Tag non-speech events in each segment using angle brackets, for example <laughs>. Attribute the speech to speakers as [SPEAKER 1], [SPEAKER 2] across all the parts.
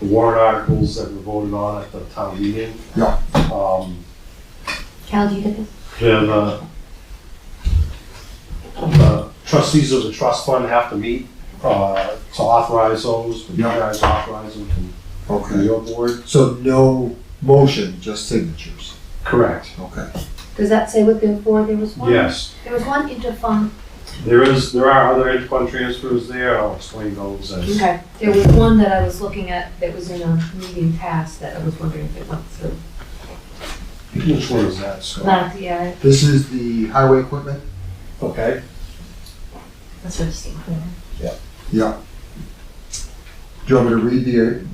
[SPEAKER 1] the warrant articles that were voted on at the town meeting.
[SPEAKER 2] Yeah.
[SPEAKER 1] Um,
[SPEAKER 3] Cal, do you get this?
[SPEAKER 1] then uh, the trustees of the trust fund have to meet uh, to authorize those, but you
[SPEAKER 2] Yeah.
[SPEAKER 1] guys authorize them from- from
[SPEAKER 2] Okay,
[SPEAKER 1] your board.
[SPEAKER 2] so no motion, just signatures.
[SPEAKER 1] Correct.
[SPEAKER 2] Okay,
[SPEAKER 3] Does that say what they're for? There was one.
[SPEAKER 1] Yes,
[SPEAKER 3] There was one interfund.
[SPEAKER 1] there is, there are other interfund transfers there, I'll explain those as.
[SPEAKER 3] Okay. There was one that I was looking at that was in a meeting past that I was wondering if it went through.
[SPEAKER 1] Which one is that, Scott?
[SPEAKER 3] Not, yeah,
[SPEAKER 2] this is the highway equipment?
[SPEAKER 1] Okay,
[SPEAKER 3] that's what I was thinking.
[SPEAKER 2] Yeah. Do you want me to read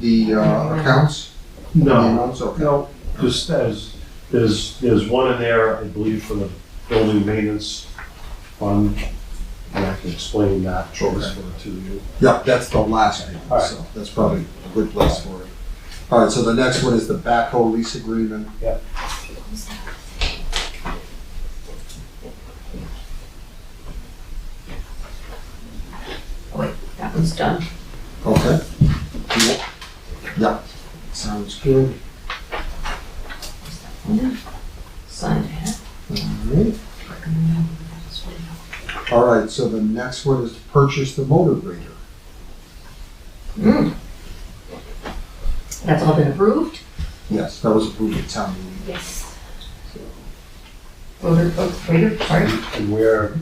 [SPEAKER 2] the, the uh, accounts? The
[SPEAKER 1] no,
[SPEAKER 2] amounts? Okay.
[SPEAKER 1] no, just as, there's, there's one in there, I believe, for the building maintenance fund. And I can explain that transfer to you.
[SPEAKER 2] Yeah, that's the last
[SPEAKER 1] All
[SPEAKER 2] one,
[SPEAKER 1] right.
[SPEAKER 2] so that's probably a good place for it. All right, so the next one is the backhoe lease agreement.
[SPEAKER 1] Yep.
[SPEAKER 3] Oh, Wait, that one's done.
[SPEAKER 2] Okay. Cool. Yeah, sounds good.
[SPEAKER 3] Mm-hmm. Signed ahead.
[SPEAKER 2] All right. All right, so the next one is to purchase the motor grader.
[SPEAKER 3] Mm. That's all been approved?
[SPEAKER 2] Yes, that was approved at town meeting.
[SPEAKER 3] Yes. Voter, vote, greater, sorry.
[SPEAKER 1] And we're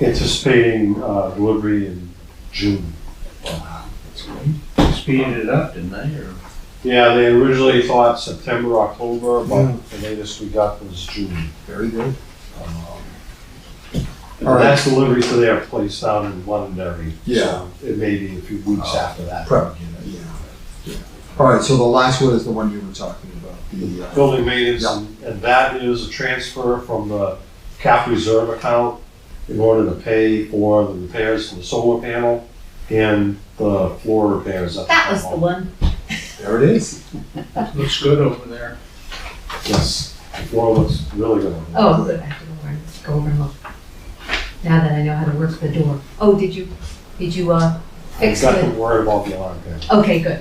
[SPEAKER 1] anticipating uh, delivery in June.
[SPEAKER 4] Speeded it up, didn't they, or?
[SPEAKER 1] Yeah, they originally thought September, October, but the latest we got was June.
[SPEAKER 2] Very good.
[SPEAKER 1] And
[SPEAKER 2] All right.
[SPEAKER 1] that's delivery to their place down in Londonderry.
[SPEAKER 2] Yeah.
[SPEAKER 1] So It may be a few weeks after that.
[SPEAKER 2] Prep. Yeah. yeah. All right, so the last one is the one you were talking about, the, uh,
[SPEAKER 1] Building maintenance,
[SPEAKER 2] Yeah.
[SPEAKER 1] and- and that is a transfer from the cap reserve account in order to pay for the repairs to the solar panel and the floor repairs. at
[SPEAKER 3] That was the
[SPEAKER 1] town hall.
[SPEAKER 3] one.
[SPEAKER 2] there it is.
[SPEAKER 4] Looks good over there.
[SPEAKER 1] Yes, the floor looks really good.
[SPEAKER 3] Oh, good, I have to go over, go over and look. Now that I know how to work the door. Oh, did you, did you, uh,
[SPEAKER 1] I've
[SPEAKER 3] fix
[SPEAKER 1] got to
[SPEAKER 3] the,
[SPEAKER 1] worry about the alarm panel.
[SPEAKER 3] okay, good.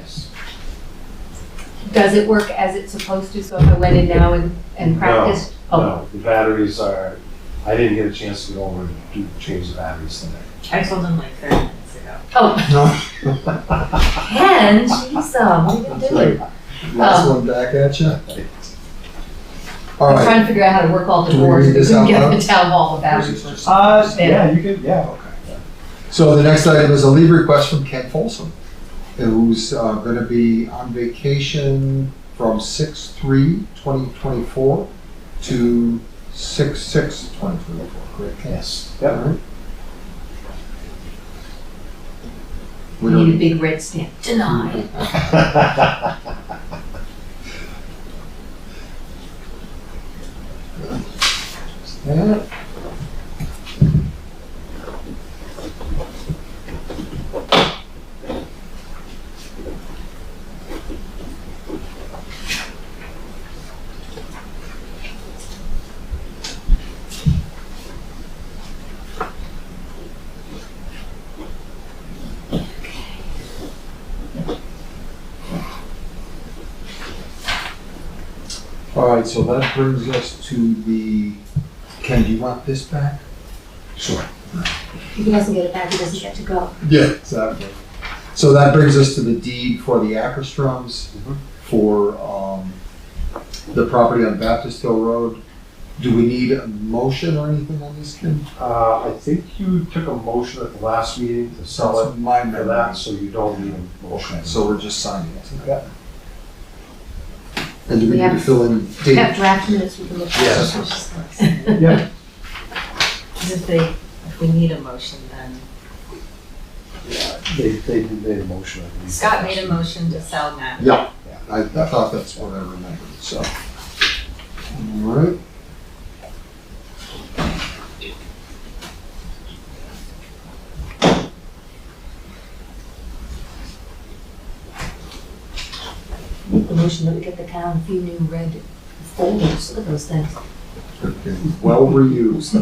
[SPEAKER 3] Does it work as it's supposed to, so if I went in now and, and
[SPEAKER 1] No,
[SPEAKER 3] practiced? Oh,
[SPEAKER 1] No, the batteries are, I didn't get a chance to go over and do, change the batteries today.
[SPEAKER 5] I told him like 30 minutes ago.
[SPEAKER 3] oh,
[SPEAKER 2] Last
[SPEAKER 3] Ken, jeez, uh, what are you doing?
[SPEAKER 2] one back at you. All
[SPEAKER 3] I'm
[SPEAKER 2] right,
[SPEAKER 3] trying to figure out how to work all the
[SPEAKER 2] Do we
[SPEAKER 3] doors,
[SPEAKER 2] read this
[SPEAKER 3] couldn't
[SPEAKER 2] out
[SPEAKER 3] <laughs> get
[SPEAKER 2] loud?
[SPEAKER 3] the town hall about
[SPEAKER 2] This is
[SPEAKER 3] it.
[SPEAKER 2] just-
[SPEAKER 1] Uh,
[SPEAKER 3] yeah,
[SPEAKER 1] you could, yeah.
[SPEAKER 2] so the next item is a leave request from Ken Folsom, who's uh, going to be on vacation from 6/3/2024 to 6/6/2024, correct? Ken?
[SPEAKER 1] Yes.
[SPEAKER 2] All
[SPEAKER 1] Yep.
[SPEAKER 2] right. We
[SPEAKER 3] We need a
[SPEAKER 2] don't,
[SPEAKER 3] big red stamp, denied.
[SPEAKER 2] Mm-hmm. yeah. All right, so that brings us to the, Ken, do you want this back? Sure.
[SPEAKER 3] If he doesn't get it back, he doesn't get to go.
[SPEAKER 2] Yeah, exactly. So that brings us to the deed for the Acrostrums
[SPEAKER 1] Mhm.
[SPEAKER 2] for, um, the property on Baptist Hill Road. Do we need a motion or anything on this, Ken?
[SPEAKER 1] Uh, I think you took a motion at the last meeting to sell it
[SPEAKER 2] My
[SPEAKER 1] for
[SPEAKER 2] memory.
[SPEAKER 1] that, so you don't need a motion.
[SPEAKER 2] So we're just signing it tonight.
[SPEAKER 1] Yeah.
[SPEAKER 2] And do we need
[SPEAKER 3] Yeah.
[SPEAKER 2] to fill in
[SPEAKER 3] We have
[SPEAKER 2] date?
[SPEAKER 3] draft minutes we can look at.
[SPEAKER 1] Yes.
[SPEAKER 3] Yes.
[SPEAKER 1] Yep.
[SPEAKER 5] If they, if we need a motion, then.
[SPEAKER 1] They, they did made a motion, I believe.
[SPEAKER 5] Scott made a motion to sell now.
[SPEAKER 2] Yeah, I, I thought that's what I remembered, so. All right.
[SPEAKER 3] Make the motion that we get the town a few new red folders, look at those things.
[SPEAKER 2] Okay, Well reused.